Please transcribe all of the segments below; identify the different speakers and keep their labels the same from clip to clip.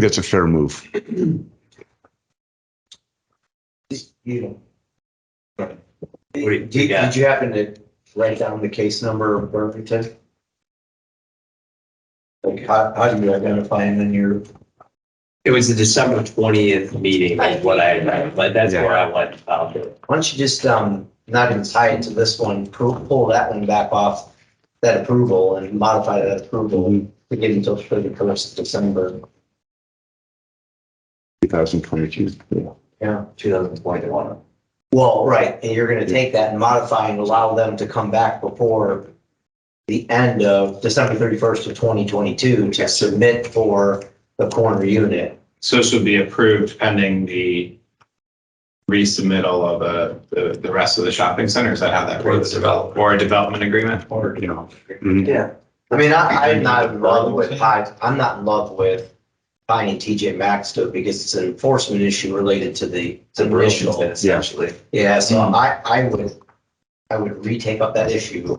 Speaker 1: That's a fair move.
Speaker 2: You know.
Speaker 3: do you
Speaker 2: Did, did
Speaker 3: got?
Speaker 2: you happen to write down the case number of Burlington? Like, how, how do you identify them in your,
Speaker 3: It was the December twentieth meeting is what I, remember, but that's where I went. um,
Speaker 2: why don't you just, um, not even tie it to this one, pull, pull that one back off that approval and modify that approval to get until thirty first of December,
Speaker 1: 2022.
Speaker 2: yeah.
Speaker 3: 2021.
Speaker 2: Well, right, and you're gonna take that and modify and allow them to come back before the end of December thirty-first of twenty twenty-two to submit for the corner unit.
Speaker 4: So this would be approved pending the resubmittal of uh, the, the rest of the shopping centers that have that.
Speaker 3: Or the development.
Speaker 4: Or a development agreement.
Speaker 1: Or, you know.
Speaker 2: Yeah. I mean, I, I'm not in love with, Pi- I'm not in love with buying TJ Maxx though, because it's an enforcement issue related to the to the initial.
Speaker 3: essentially.
Speaker 2: Yeah, so I, I would, I would retake up that issue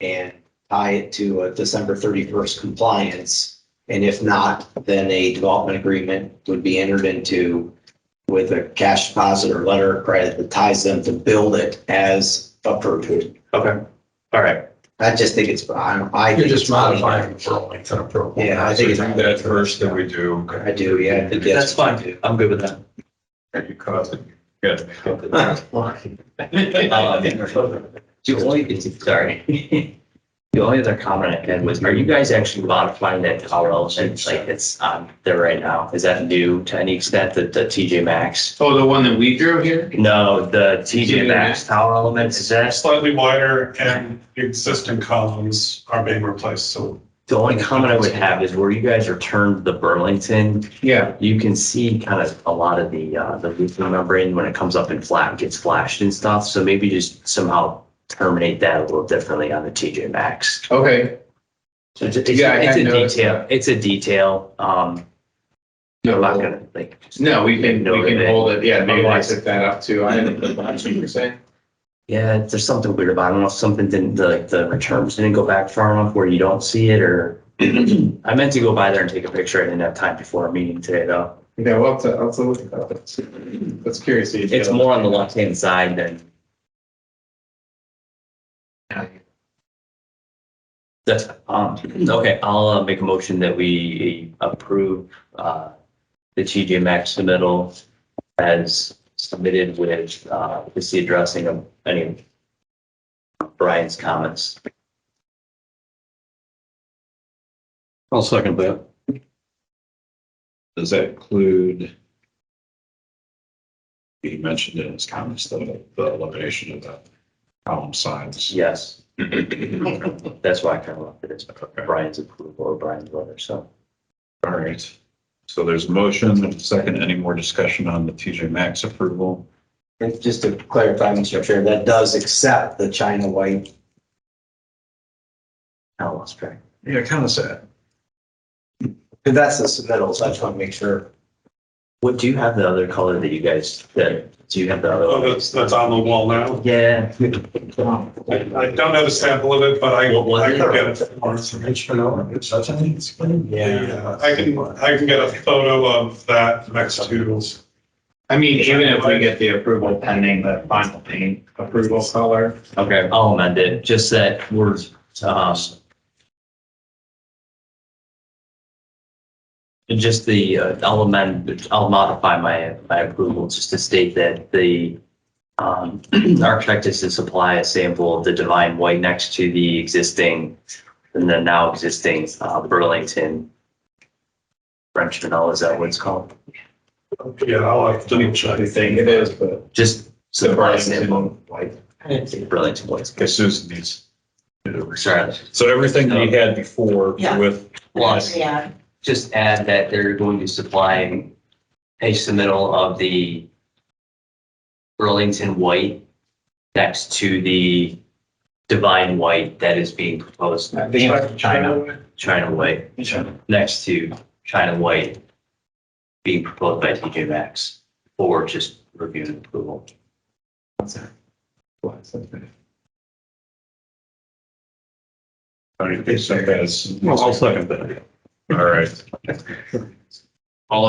Speaker 2: and tie it to a December thirty-first compliance. And if not, then a development agreement would be entered into with a cash deposit or letter of credit that ties them to build it as approved.
Speaker 4: Okay, all right.
Speaker 2: I just think it's, I don't, I.
Speaker 5: You're
Speaker 2: think
Speaker 5: just
Speaker 2: it's funny.
Speaker 5: modifying the Burlington approval.
Speaker 2: Yeah, I think it's-
Speaker 5: So do That first that we do.
Speaker 2: I do, yeah. I think
Speaker 3: That's fine. I'm good with that.
Speaker 5: And you cause it.
Speaker 3: Um, The only, sorry. The only other comment I had was, are you guys actually modifying that tower element like it's on um, there right now? Is that new to any extent that the TJ Maxx?
Speaker 4: Oh, the one that we drew here?
Speaker 3: No, the TJ Maxx tower element, is that
Speaker 6: slightly wider and the existing columns are being replaced, so.
Speaker 3: the only comment I would have is where you guys returned the Burlington,
Speaker 4: Yeah.
Speaker 3: you can see kind of a lot of the, uh, the leaf membrane when it comes up in flat, gets flashed and stuff. So maybe just somehow terminate that a little differently on the TJ Maxx.
Speaker 4: Okay.
Speaker 3: So It's it's-
Speaker 4: Yeah, I
Speaker 3: it's a
Speaker 4: had noticed
Speaker 3: detail,
Speaker 4: that.
Speaker 3: it's a detail, um, I'm not gonna, like,
Speaker 4: No, Oh, we can, we can hold it. Yeah, maybe I set that up too. I didn't know what you were saying.
Speaker 3: yeah, there's something weird about it, I don't know if something didn't, the- like, the returns didn't go back far enough where you don't see it, or I meant to go by there and take a picture, I didn't have time before our meeting today, though.
Speaker 4: Yeah, well, I'll, have to- I'll have to look at that. That's curious. to
Speaker 3: It's more on the left-hand side than. That's, um, okay, I'll uh, make a motion that we approve, uh, the TJ Maxx submittal as submitted with, uh, just the addressing of any of Brian's comments.
Speaker 7: I'll second that.
Speaker 5: Does that include? He mentioned in his comments the, the elimination of the column signs.
Speaker 3: Yes. That's why I kind of left it as Brian's approval or Brian's letter, so.
Speaker 5: All right. So there's a motion and a second. Any more discussion on the TJ Maxx approval?
Speaker 2: And Just to clarify, Mr. Chair, that does accept the China white.
Speaker 3: I lost track.
Speaker 5: Yeah, kind of sad.
Speaker 2: That's the submittal, so I just want to make sure.
Speaker 3: What, do you have the other color that you guys, that, do you have the other?
Speaker 6: Oh,
Speaker 3: one?
Speaker 6: that's, that's on the wall now.
Speaker 3: Yeah.
Speaker 6: I, I don't have a sample of it, but I,
Speaker 3: What was
Speaker 6: I can
Speaker 3: it?
Speaker 6: get it. Yeah, I can, I can get a photo of that next to.
Speaker 4: I mean, even if we get the approval pending the final paint approval color.
Speaker 3: Okay, I'll amend it, just that we're, um. and Just the, uh, I'll amend, I'll modify my, my approval just to state that the, um, architect is to supply a sample of the divine white next to the existing, and the now existing, uh, Burlington. French vanilla, is that what it's called?
Speaker 6: Yeah, I'll have to check.
Speaker 4: think it is, but.
Speaker 3: Just
Speaker 4: So
Speaker 3: supply a
Speaker 4: Burlington
Speaker 3: sample,
Speaker 4: white.
Speaker 3: of Burlington white.
Speaker 5: Because Susan needs.
Speaker 3: Sorry,
Speaker 5: So everything that he had before
Speaker 8: Yeah.
Speaker 5: with.
Speaker 3: Plus.
Speaker 8: Yeah,
Speaker 3: just add that they're going to supply a submittal of the Burlington white next to the divine white that is being proposed, China. China white, next to China white being proposed by TJ Maxx for just review and approval.
Speaker 5: All right, so that's-
Speaker 7: I'll second that.
Speaker 5: All right.